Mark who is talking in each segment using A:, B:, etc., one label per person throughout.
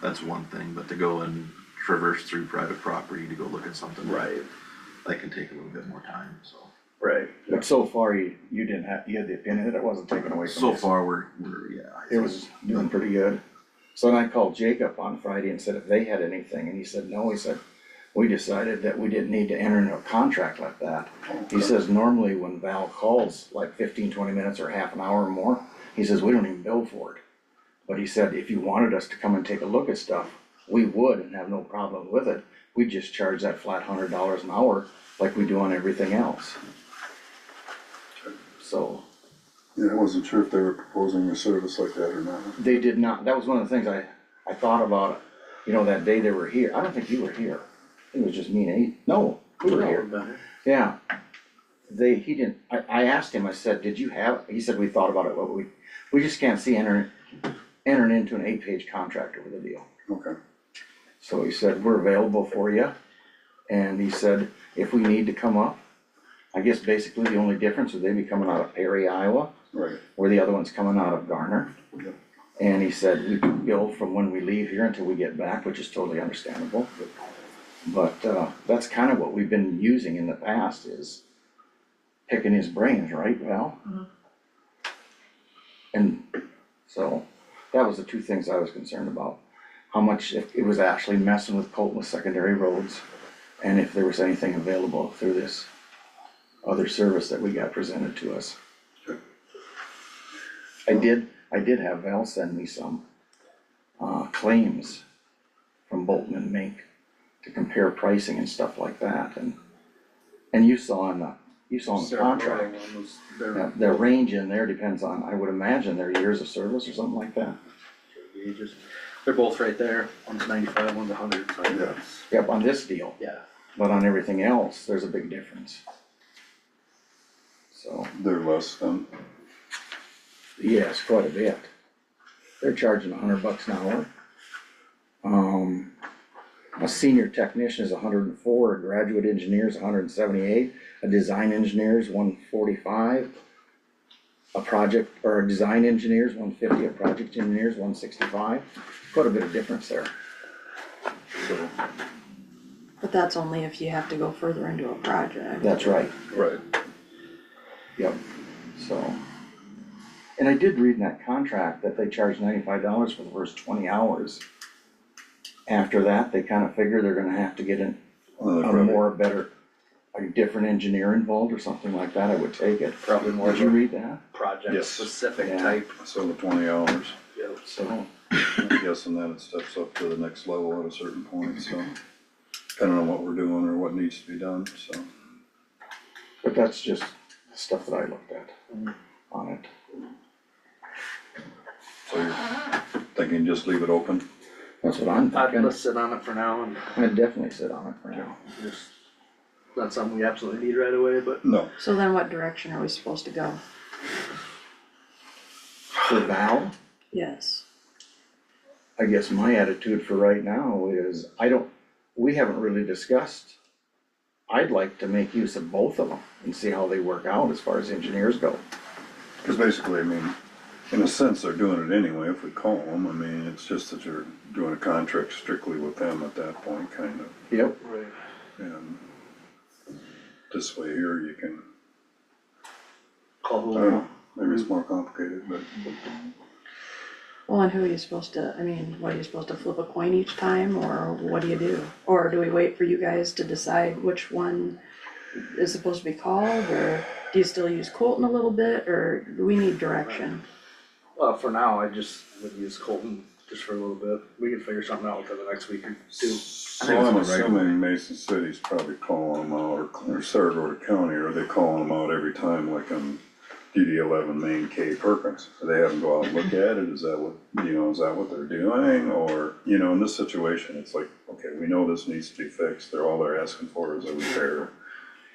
A: that's one thing, but to go and traverse through private property to go look at something.
B: Right,
A: That can take a little bit more time, so.
B: right.
C: But so far, you, you didn't have, you had the opinion that it wasn't taken away from you.
A: So far, we're, we're, yeah. I
C: It
A: think-
C: was doing pretty good. So then I called Jacob on Friday and said if they had anything, and he said, no, he said, we decided that we didn't need to enter into a contract like that. He says normally when Val calls like 15, 20 minutes or half an hour or more, he says, we don't even bill for it. But he said, if you wanted us to come and take a look at stuff, we would and have no problem with it. We just charge that flat hundred dollars an hour like we do on everything else. So.
D: Yeah, I wasn't sure if they were proposing a service like that or not.
C: They did not, that was one of the things I, I thought about, you know, that day they were here, I don't think you were here. It was just me and Nate, no, we were here, yeah. They, he didn't, I, I asked him, I said, did you have, he said, we thought about it, but we, we just can't see entering, entering into an eight-page contract over the deal.
D: Okay,
C: So he said, we're available for you, and he said, if we need to come up, I guess basically the only difference is they'd be coming out of Perry, Iowa,
D: right,
C: where the other one's coming out of Garner.
D: Yep.
C: And he said, we can go from when we leave here until we get back, which is totally understandable. But, uh, that's kind of what we've been using in the past is picking his brains, right, Val? And so, that was the two things I was concerned about. How much, if it was actually messing with Colton's secondary roads, and if there was anything available through this other service that we got presented to us. I did, I did have Val send me some, uh, claims from Bolton and Mink to compare pricing and stuff like that, and, and you saw in the, you saw in the contract. Now, Their range in there depends on, I would imagine, their years of service or something like that.
B: They're both right there, one's ninety-five, one's a hundred, so
D: Yeah.
B: that's,
C: Yep, on this deal,
B: yeah.
C: but on everything else, there's a big difference. So,
D: they're less than,
C: yes, quite a bit. They're charging a hundred bucks an hour. Um, a senior technician is hundred and four, a graduate engineer is hundred and seventy-eight, a design engineer is one forty-five. A project, or a design engineer is one fifty, a project engineer is one sixty-five, quite a bit of difference there. So,
E: But that's only if you have to go further into a project.
C: that's right.
D: right,
C: Yep, so. And I did read in that contract that they charge ninety-five dollars for the first twenty hours. After that, they kind of figure they're gonna have to get an-
D: Another
C: a
D: revenue.
C: more, better, a different engineer involved or something like that, I would take it.
B: Probably more
C: Did you
B: of a
C: read that?
B: project
D: Yes.
B: specific
C: Yeah.
B: type.
D: so the twenty hours.
C: So,
D: I'm guessing that it steps up to the next level at a certain point, so depending on what we're doing or what needs to be done, so.
C: but that's just stuff that I looked at on it.
D: So you're thinking just leave it open?
C: That's what I'm
B: I'd
C: thinking.
B: let's sit on it for now and
C: I'd definitely sit on it for now.
B: just, not something we absolutely need right away, but
D: No,
E: So then what direction are we supposed to go?
C: For Val?
E: Yes,
C: I guess my attitude for right now is, I don't, we haven't really discussed. I'd like to make use of both of them and see how they work out as far as engineers go.
D: cause basically, I mean, in a sense, they're doing it anyway if we call them, I mean, it's just that you're doing a contract strictly with them at that point, kind of.
C: Yep.
B: Right.
D: And this way here, you can, I don't
B: call
D: know, maybe it's more complicated, but
E: well, and who are you supposed to, I mean, what are you supposed to flip a coin each time, or what do you do? Or do we wait for you guys to decide which one is supposed to be called, or do you still use Colton a little bit, or do we need direction?
B: Well, for now, I just would use Colton just for a little bit. We can figure something out within the next week or two.
D: So I'm assuming Mason City's probably calling them out, or, or Saragordo County, or they calling them out every time, like on DD eleven main K Perkins? Do they have them go out and look at it, is that what, you know, is that what they're doing, or, you know, in this situation, it's like, okay, we know this needs to be fixed, they're, all they're asking for is a repair.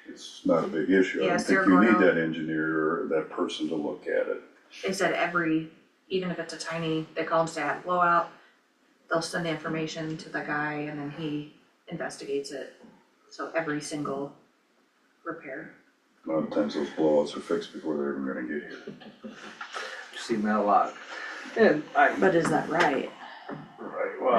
D: It's not a big issue, I
F: Yeah,
D: don't think you need
F: Saragordo-
D: that engineer or that person to look at it.
F: They said every, even if it's a tiny, they call them stat blowout, they'll send the information to the guy and then he investigates it. So every single repair.
D: A lot of times those blowouts are fixed before they're even gonna get here.
B: Seen that a lot. And I,
E: But is that right?